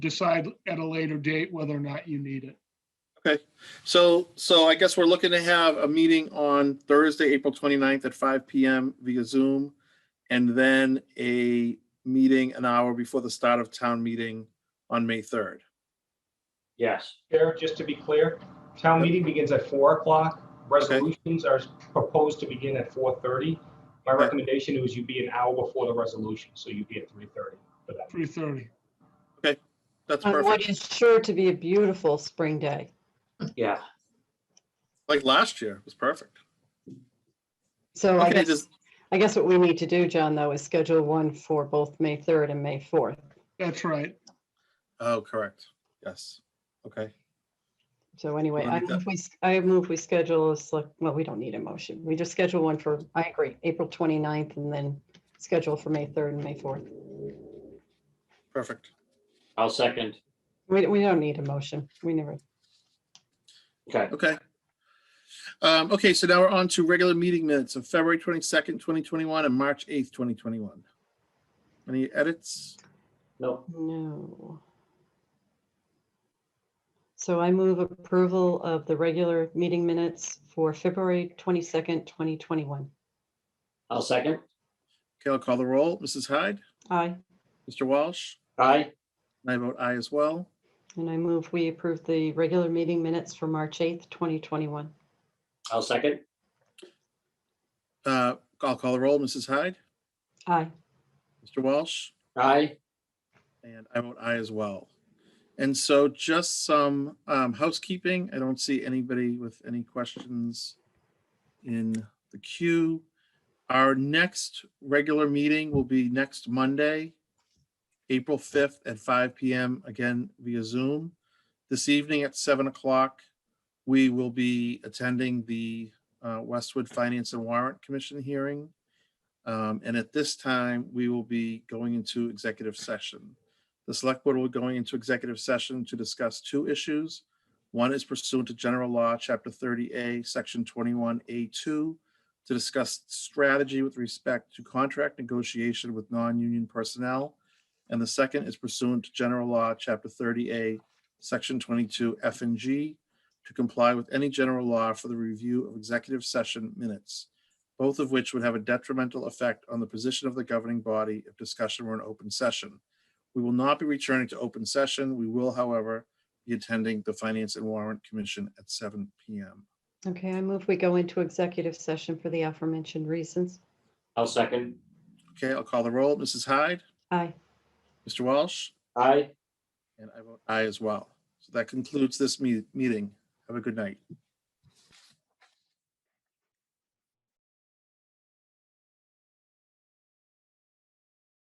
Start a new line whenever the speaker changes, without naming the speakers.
decide at a later date whether or not you need it.
So, so I guess we're looking to have a meeting on Thursday, April 29th at five PM via Zoom. And then a meeting an hour before the start of town meeting on May 3rd.
Yes,
Chair, just to be clear, town meeting begins at four o'clock. Resolutions are proposed to begin at four thirty. My
Okay.
recommendation is you be an hour before the resolution, so you'd be at three thirty for that.
Three thirty.
That's
on
perfect,
what is sure to be a beautiful spring day.
yeah.
like last year, it was perfect.
So I
Okay,
guess,
does,
I guess what we need to do, John, though, is schedule one for both May 3rd and May 4th.
That's right.
oh, correct, yes, okay.
So anyway,
Wanna
I
make that-
move we, s- I move we schedule a select, well, we don't need a motion. We just schedule one for, I agree, April 29th and then schedule for May 3rd and May 4th.
Perfect.
I'll second.
We, we don't need a motion. We never,
Okay,
Okay. Um, okay, so now we're on to regular meeting minutes of February twenty-second, twenty twenty-one and March eighth, twenty twenty-one. Any edits?
no,
no. So I move approval of the regular meeting minutes for February 22nd, 2021.
I'll second.
Okay, I'll call the roll. Mrs. Hyde,
Aye.
Mr. Walsh,
Aye,
and I vote aye as well.
And I move we approve the regular meeting minutes for March 8th, 2021.
I'll second.
Uh, I'll call the roll. Mrs. Hyde,
Aye.
Mr. Walsh,
Aye,
and I vote aye as well. And so just some um, housekeeping. I don't see anybody with any questions in the queue. Our next regular meeting will be next Monday, April 5th at 5 PM, again via Zoom. This evening at 7 o'clock, we will be attending the uh, Westwood Finance and Warrant Commission hearing. Um, And at this time, we will be going into executive session. The select board will be going into executive session to discuss two issues. One is pursuant to general law, chapter thirty A, section twenty-one A two, to discuss strategy with respect to contract negotiation with non-union personnel. And the second is pursuant to general law, chapter thirty A, section twenty-two F and G, to comply with any general law for the review of executive session minutes, both of which would have a detrimental effect on the position of the governing body if discussion were an open session. We will not be returning to open session. We will, however, be attending the Finance and Warrant Commission at seven PM.
Okay, I move we go into executive session for the aforementioned reasons.
I'll second.
Okay, I'll call the roll. Mrs. Hyde,
Aye.
Mr. Walsh,
Aye,
and I vote aye as well. So that concludes this me- meeting. Have a good night.